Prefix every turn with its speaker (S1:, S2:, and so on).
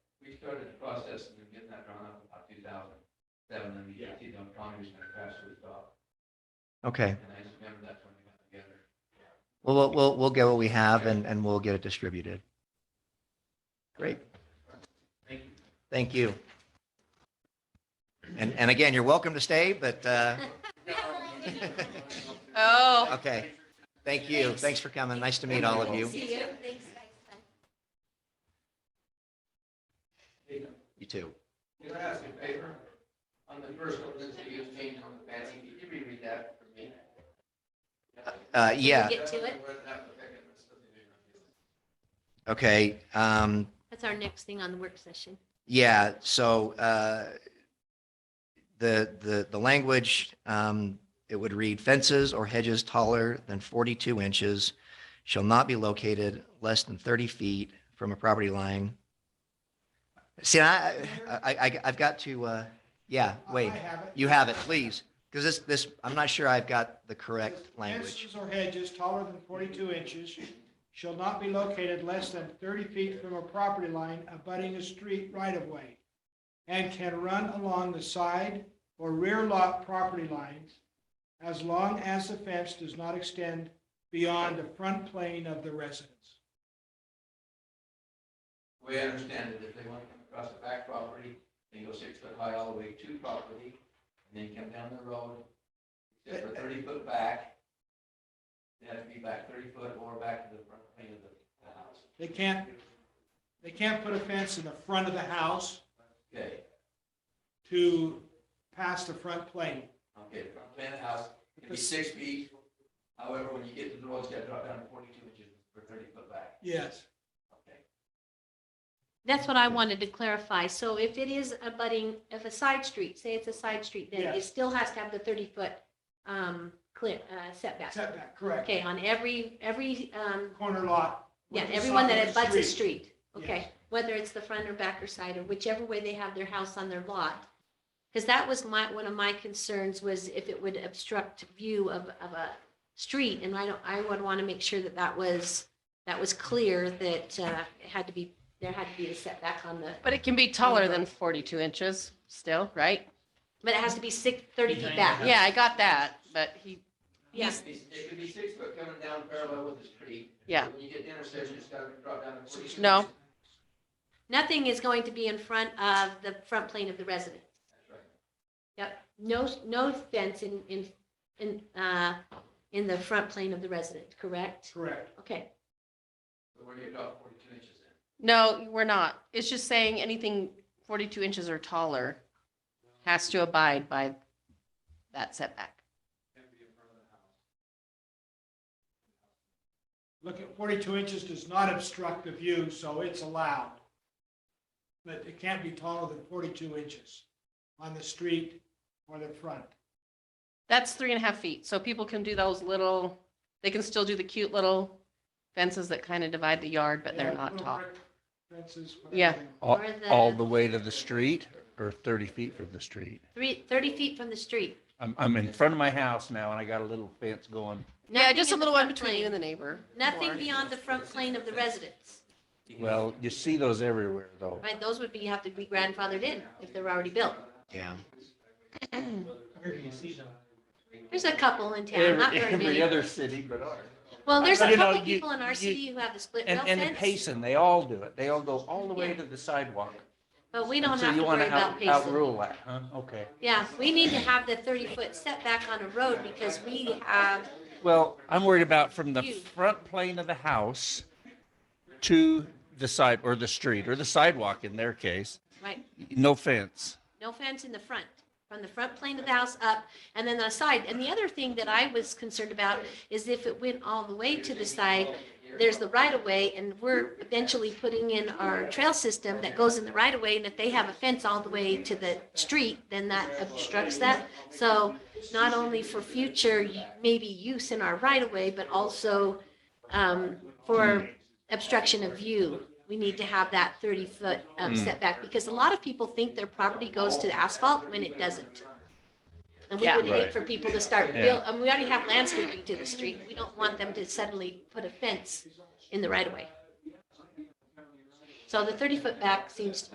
S1: started the process and we're getting that drawn up about two thousand seven, and the
S2: Yeah.
S1: AT dump economy was gonna crash to a stop.
S3: Okay.
S1: And I just remember that's when we got together.
S3: Well, We'll, we'll, we'll get what we have and, and we'll get it distributed. Great.
S1: Thank you.
S3: Thank you. And, and again, you're welcome to stay, but, uh,
S4: Oh,
S3: okay. Thank you. Thanks for coming. Nice to meet all of you.
S5: See you. Thanks, guys.
S1: Hey,
S3: You too.
S1: Can I ask you a favor? On the first ordinance that you changed on the fancy, could you reread that for me?
S3: Uh, yeah,
S5: Get to it.
S3: okay. Um,
S5: That's our next thing on the work session.
S3: Yeah, so uh, the, the, the language, um, it would read fences or hedges taller than 42 inches shall not be located less than 30 feet from a property line. See, I, I, I- I've got to, uh, yeah, wait,
S2: I have it.
S3: you have it, please. Because this, this, I'm not sure I've got the correct language.
S2: Fences or hedges taller than 42 inches shall not be located less than 30 feet from a property line abutting a street right-of-way and can run along the side or rear lot property lines as long as the fence does not extend beyond the front plane of the residence.
S1: We understand that if they want to come across the back property, they go six foot high all the way to property, and then come down the road, except for thirty foot back. They have to be back thirty foot or back to the front plane of the, the house.
S2: They can't, they can't put a fence in the front of the house
S1: Okay,
S2: to pass the front plane.
S1: okay, the front plane of the house can be six feet. However, when you get to the road, it's got to drop down to forty-two inches for thirty foot back,
S2: Yes.
S1: okay?
S5: That's what I wanted to clarify. So if it is a budding, if a side street, say it's a side street, then it
S2: Yes.
S5: still has to have the thirty foot um clear uh setback.
S2: Setback, correct.
S5: Okay, on every, every, um,
S2: Corner lot.
S5: yeah,
S2: with the
S5: everyone
S2: side
S5: that
S2: of the
S5: abuts a street, okay?
S2: Yes.
S5: Whether it's the front or back or side or whichever way they have their house on their lot. Because that was my, one of my concerns was if it would obstruct view of, of a street. And I don't, I would want to make sure that that was, that was clear that uh, it had to be, there had to be a setback on the,
S4: but it can be taller than 42 inches still, right?
S5: but it has to be six, 30 feet back.
S4: Yeah, I got that, but he,
S5: Yeah.
S1: It could be- It could be six foot coming down parallel with the street.
S4: Yeah.
S1: When you get to the intersection, it's got to drop down to forty-two.
S4: No.
S1: inches.
S5: Nothing is going to be in front of the front plane of the residence.
S1: That's right.
S5: No, no fence in, in, in, uh, in the front plane of the resident, correct?
S2: Correct.
S5: Okay,
S1: So where do you drop forty-two inches in?
S4: no, we're not. It's just saying anything 42 inches or taller has to abide by that setback.
S2: Look at 42 inches does not obstruct the view, so it's allowed. But it can't be taller than 42 inches on the street or the front.
S4: That's three and a half feet. So people can do those little, they can still do the cute little fences that kind of divide the yard, but they're
S2: Yeah,
S4: not
S2: little
S4: tall.
S2: brick Fences. whatever
S4: Yeah.
S2: they want.
S6: All,
S5: Or the-
S6: all the way to the street or 30 feet from the street?
S5: three, 30 feet from the street.
S6: I'm, I'm in front of my house now and I got a little fence going.
S4: Yeah,
S5: Nothing
S4: just a
S5: in the
S4: little one
S5: front
S4: between you
S5: plane.
S4: and the neighbor.
S5: Nothing
S4: Or-
S5: beyond the front plane of the residence,
S6: Well, you see those everywhere though.
S5: right? Those would be, you have to be grandfathered in if they're already built.
S3: Yeah.
S5: There's a couple in town, not
S6: Every,
S5: very
S6: every
S5: many.
S6: other city but ours.
S5: Well, there's a
S6: You know,
S5: couple
S6: you-
S5: people in our
S6: you-
S5: city who have the split
S6: And,
S5: rail
S6: and in
S5: fence,
S6: Payson, they all do it. They all go all the way
S5: Yeah.
S6: to the sidewalk.
S5: but we
S6: And
S5: don't
S6: so
S5: have
S6: you
S5: to
S6: wanna
S5: worry about
S6: out-
S5: pacing.
S6: Outrule that, huh? Okay.
S5: Yeah, we need to have the 30-foot setback on a road because we have,
S6: Well, I'm worried about from the
S5: You.
S6: front plane of the house to the side or the street or the sidewalk in their case,
S5: right,
S6: no fence.
S5: No fence in the front, from the front plane of the house up, and then the side. And the other thing that I was concerned about is if it went all the way to the side, there's the right of way, and we're eventually putting in our trail system that goes in the right of way, and if they have a fence all the way to the street, then that obstructs that. So not only for future maybe use in our right of way, but also um, for obstruction of view, we need to have that 30-foot um,
S6: Mm.
S5: setback, because a lot of people think their property goes to the asphalt when it doesn't. And we
S4: Yeah.
S5: would hate
S6: Right.
S5: for people to start
S6: Yeah.
S5: build, and we already have landscaping to the street, we don't want them to suddenly put a fence in the right-of-way. So the 30-foot back seems to